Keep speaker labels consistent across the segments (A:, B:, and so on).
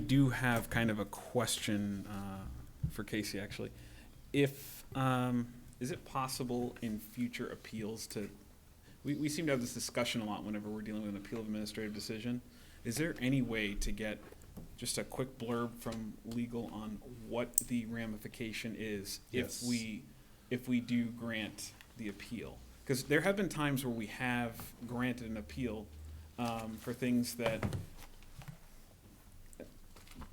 A: do have kind of a question uh, for Casey, actually. If, um, is it possible in future appeals to, we, we seem to have this discussion a lot whenever we're dealing with an appeal of administrative decision. Is there any way to get just a quick blurb from legal on what the ramification is if
B: Yes.
A: we, if we do grant the appeal? Because there have been times where we have granted an appeal um, for things that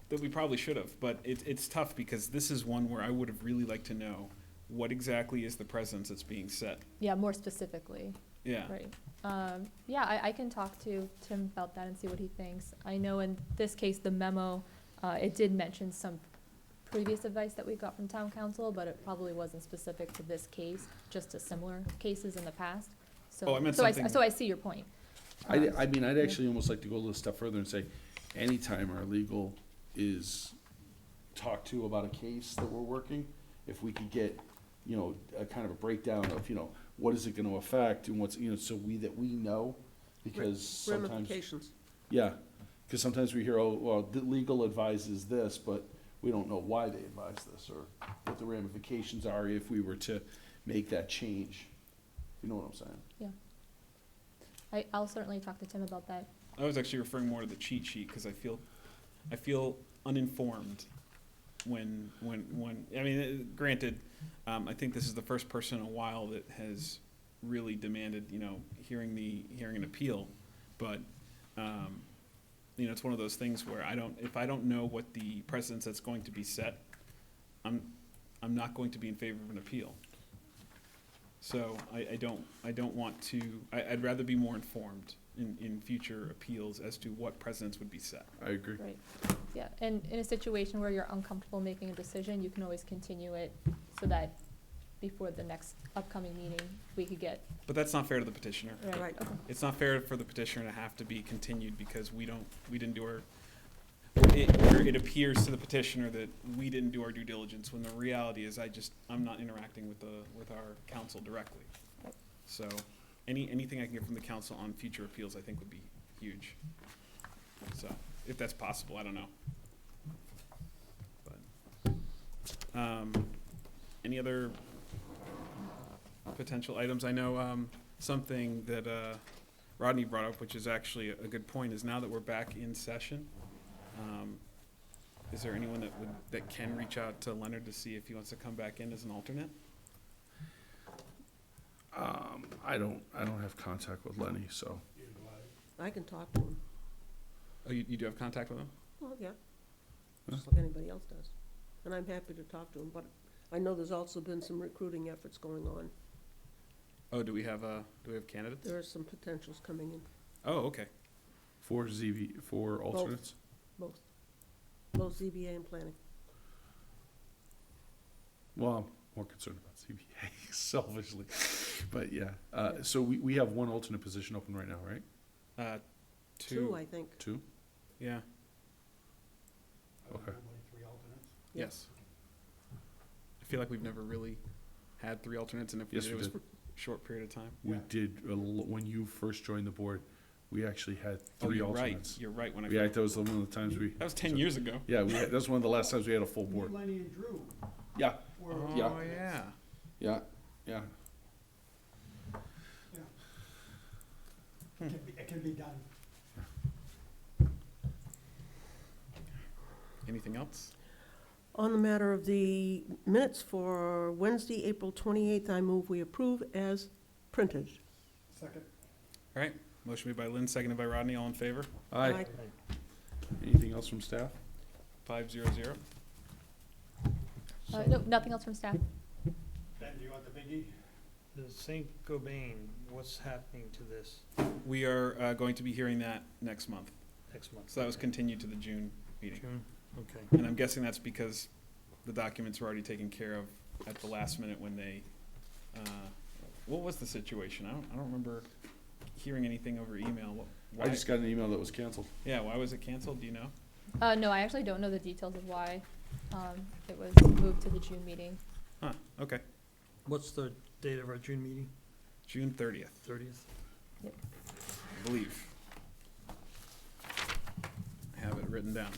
A: that we probably should have, but it, it's tough because this is one where I would have really liked to know what exactly is the precedence that's being set.
C: Yeah, more specifically,
A: Yeah.
C: right. Um, yeah, I, I can talk to Tim about that and see what he thinks. I know in this case, the memo, uh, it did mention some previous advice that we got from town council, but it probably wasn't specific to this case, just to similar cases in the past. So,
A: Oh, I meant
C: so
A: something-
C: So I see your point.
B: I,
C: Um,
B: I mean, I'd
C: yeah.
B: actually almost like to go a little step further and say, anytime our legal is talked to about a case that we're working, if we could get, you know, a kind of a breakdown of, you know, what is it gonna affect and what's, you know, so we, that we know, because sometimes.
D: Ramifications.
B: Yeah, because sometimes we hear, oh, well, the legal advises this, but we don't know why they advise this or what the ramifications are if we were to make that change. You know what I'm saying?
C: Yeah. I, I'll certainly talk to Tim about that.
A: I was actually referring more to the cheat sheet because I feel, I feel uninformed when, when, when, I mean, uh, granted, um, I think this is the first person in a while that has really demanded, you know, hearing the, hearing an appeal. But, um, you know, it's one of those things where I don't, if I don't know what the precedence that's going to be set, I'm, I'm not going to be in favor of an appeal. So I, I don't, I don't want to, I, I'd rather be more informed in, in future appeals as to what precedents would be set.
B: I agree.
C: Right, yeah, and in a situation where you're uncomfortable making a decision, you can always continue it so that before the next upcoming meeting, we could get,
A: But that's not fair to the petitioner.
C: right,
D: Right.
C: okay,
A: It's not fair for the petitioner to have to be continued because we don't, we didn't do our, it, or it appears to the petitioner that we didn't do our due diligence, when the reality is I just, I'm not interacting with the, with our council directly. So, any, anything I can get from the council on future appeals, I think would be huge. So, if that's possible, I don't know. But, um, any other potential items? I know, um, something that, uh, Rodney brought up, which is actually a good point, is now that we're back in session, um, is there anyone that would, that can reach out to Leonard to see if he wants to come back in as an alternate?
B: Um, I don't, I don't have contact with Lenny, so.
D: I can talk to him.
A: Oh, you, you do have contact with him?
D: Well, yeah, just like anybody else does. And I'm happy to talk to him, but I know there's also been some recruiting efforts going on.
A: Oh, do we have, uh, do we have candidates?
D: There are some potentials coming in,
A: Oh, okay.
B: Four ZV, four alternates?
D: both, both ZBA and planning.
B: Well, I'm more concerned about ZBA selfishly, but yeah. Uh, so we, we have one alternate position open right now, right?
A: Uh,
D: Two,
A: two,
D: I think.
B: Two?
A: yeah,
B: Okay.
A: Uh,
D: Yeah.
A: yes. I feel like we've never really had three alternates, and if we
B: Yes,
A: did, it
B: we
A: was
B: did.
A: for a short period of time.
B: We did, a l- when you first joined the board, we actually had
A: Oh,
B: three
A: you're right,
B: alternates.
A: you're right, when I,
B: Yeah,
A: that
B: that was one of the times we,
A: was ten years ago.
B: yeah, we, had- that was one of the last times we had a full board.
E: Lenny and Drew
B: Yeah,
E: were.
A: Oh,
B: Yeah.
A: yeah.
B: yeah, yeah.
E: It can be- It can be done.
A: Anything else?
D: On the matter of the minutes for Wednesday, April 28th, I move we approve as printed.
E: Second.
A: All right, motion made by Lynn, seconded by Rodney, all in favor?
B: Aye. Anything else from staff?
A: Five zero zero.
C: uh, no, nothing else from staff,
E: Ben, do you want the E? biggie?
F: The Saint Gobain, what's happening to this
A: We are uh, going to be hearing that next month.
F: next month?
A: So that was continued to the June meeting.
F: June, okay.
A: And I'm guessing that's because the documents were already taken care of at the last minute when they, uh, what was the situation? I don't, I don't remember hearing anything over email. What-
B: I
A: Why,
B: just got an email that was canceled.
A: yeah, why was it canceled? Do you know?
C: uh, no, I actually don't know the details of why, um, it was moved to the June meeting.
A: Huh, okay.
F: What's the date of our June meeting,
A: June thirtieth,
F: thirtieth?
A: I believe. I have it written down.